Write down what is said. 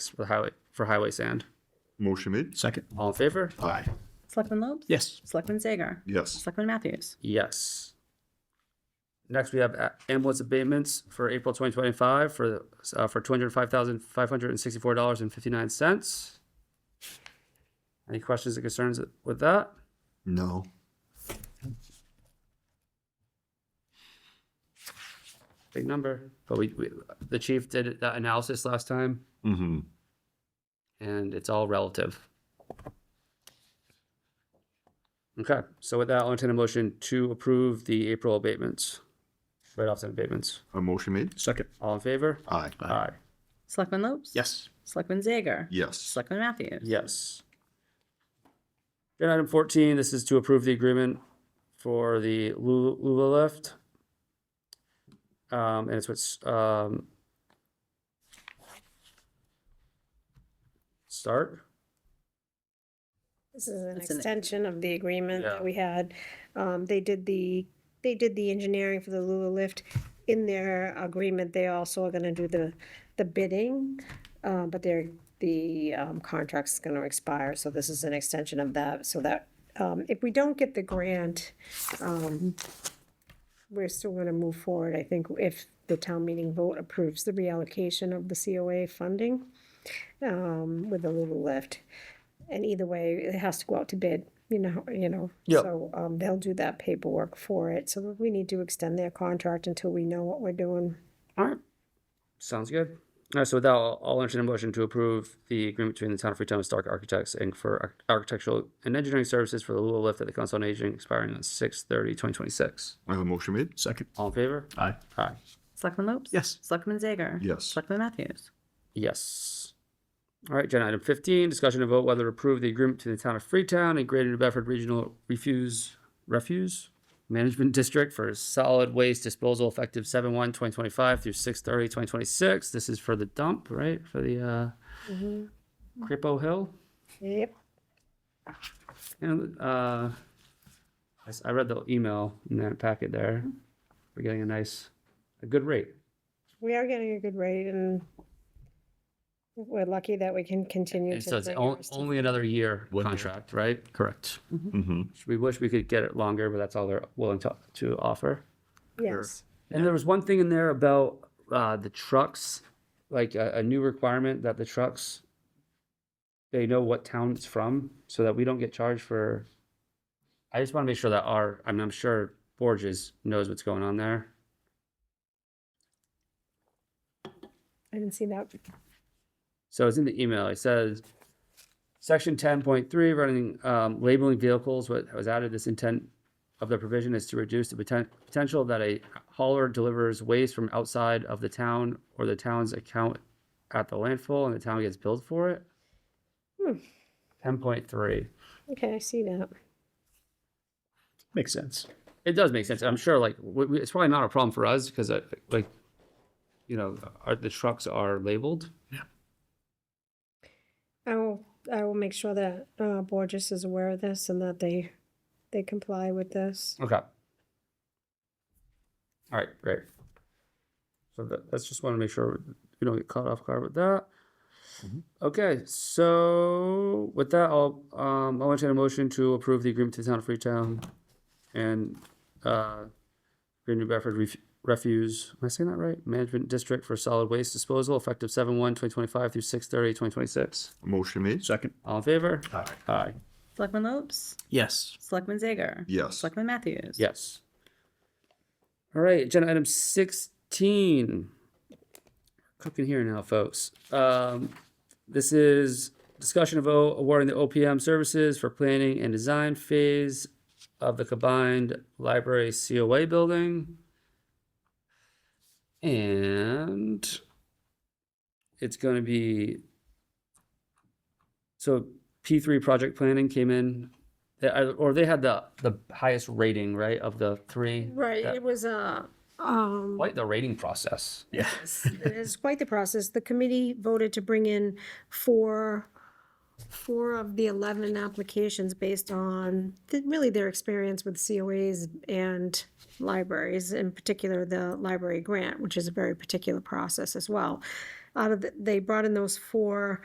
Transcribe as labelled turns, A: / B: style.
A: for highway, for highway sand.
B: Motion made?
C: Second.
A: All in favor?
B: Aye.
D: Selectman Lopes?
C: Yes.
D: Selectman Zager?
B: Yes.
D: Selectman Matthews?
A: Yes. Next, we have a- ambulance abatements for April twenty twenty-five for, uh, for two hundred five thousand, five hundred and sixty-four dollars and fifty-nine cents. Any questions or concerns with that?
B: No.
A: Big number, but we, we, the chief did that analysis last time,
B: Mm-hmm.
A: and it's all relative. Okay, so with that, I'll entertain a motion to approve the April abatements, write-offs and abatements.
B: A motion made?
C: Second.
A: All in favor?
B: Aye.
A: Aye.
D: Selectman Lopes?
C: Yes.
D: Selectman Zager?
B: Yes.
D: Selectman Matthews?
A: Yes. Then item fourteen, this is to approve the agreement for the Lu- Lula lift. Um, and it's what's, um, start,
E: This is an
D: That's an-
E: extension of the agreement
A: Yeah.
E: that we had. Um, they did the, they did the engineering for the Lula lift. In their agreement, they also are gonna do the, the bidding, uh, but their, the, um, contract's gonna expire, so this is an extension of that, so that, um, if we don't get the grant, um, we're still gonna move forward, I think, if the town meeting vote approves the reallocation of the COA funding, um, with the Lula lift. And either way, it has to go out to bid, you know, you know.
A: Yep.
E: So, um, they'll do that paperwork for it, so we need to extend their contract until we know what we're doing.
A: alright, sounds good. Alright, so with that, I'll I'll entertain a motion to approve the agreement between the town of Freetown and Stark Architects Inc. for arch- architectural and engineering services for the Lula lift at the Council on Aging expiring on six thirty twenty twenty-six.
B: A motion made?
C: Second.
A: All in favor?
C: Aye.
A: Aye.
D: Selectman Lopes?
C: Yes.
D: Selectman Zager?
B: Yes.
D: Selectman Matthews?
A: Yes. All right, agenda item fifteen, discussion and vote whether to approve the agreement to the town of Freetown and Greater New Bedford Regional Refuse, Refuse Management District for solid waste disposal effective seven one twenty twenty-five through six thirty twenty twenty-six. This is for the dump, right? For the, uh, Crippo Hill?
E: Yep.
A: And, uh, I s- I read the email in that packet there. We're getting a nice, a good rate.
E: We are getting a good rate and we're lucky that we can continue
A: And
E: to.
A: so it's
E: bring
A: on-
E: ours to-
A: only another year
C: One year.
A: contract, right?
C: Correct.
B: Mm-hmm.
A: We wish we could get it longer, but that's all they're willing to, to offer.
E: Yes,
A: And there was one thing in there about uh, the trucks, like a, a new requirement that the trucks, they know what town it's from, so that we don't get charged for. I just want to make sure that our, I mean, I'm sure Borges knows what's going on there.
E: I didn't see that.
A: So it's in the email. It says, section ten point three, running, um, labeling vehicles, what was added, this intent of the provision is to reduce the poten- potential that a hauler delivers waste from outside of the town or the town's account at the landfill and the town gets billed for it.
E: Hmm.
A: Ten point three.
E: Okay, I see that.
C: Makes sense.
A: It does make sense. I'm sure like, we, we- it's probably not a problem for us because I, like, you know, are, the trucks are labeled.
E: I will, I will make sure that, uh, Borges is aware of this and that they, they comply with this.
A: Okay. All right, great. So that, that's just want to make sure we don't get caught off guard with that. Okay, so with that, I'll, um, I'll entertain a motion to approve the agreement to the town of Freetown and, uh, Greater New Bedford Ref- Refuse, am I saying that right? Management District for Solid Waste Disposal effective seven one twenty twenty-five through six thirty twenty twenty-six.
B: Motion made?
C: Second.
A: All in favor?
B: Aye.
A: Aye.
D: Selectman Lopes?
C: Yes.
D: Selectman Zager?
B: Yes.
D: Selectman Matthews?
A: Yes. All right, agenda item sixteen. Cooking here now, folks. Um, this is discussion of O- awarding the OPM services for planning and design phase of the combined library COA building. And it's gonna be so P three project planning came in they- I- or they had the the highest rating, right, of the three.
E: Right,
A: Yeah.
E: it was a, um,
A: Quite the rating process.
C: Yeah.
E: it is quite the process. The committee voted to bring in four, four of the eleven applications based on th- really their experience with COAs and libraries, in particular the library grant, which is a very particular process as well. out of, the- they brought in those four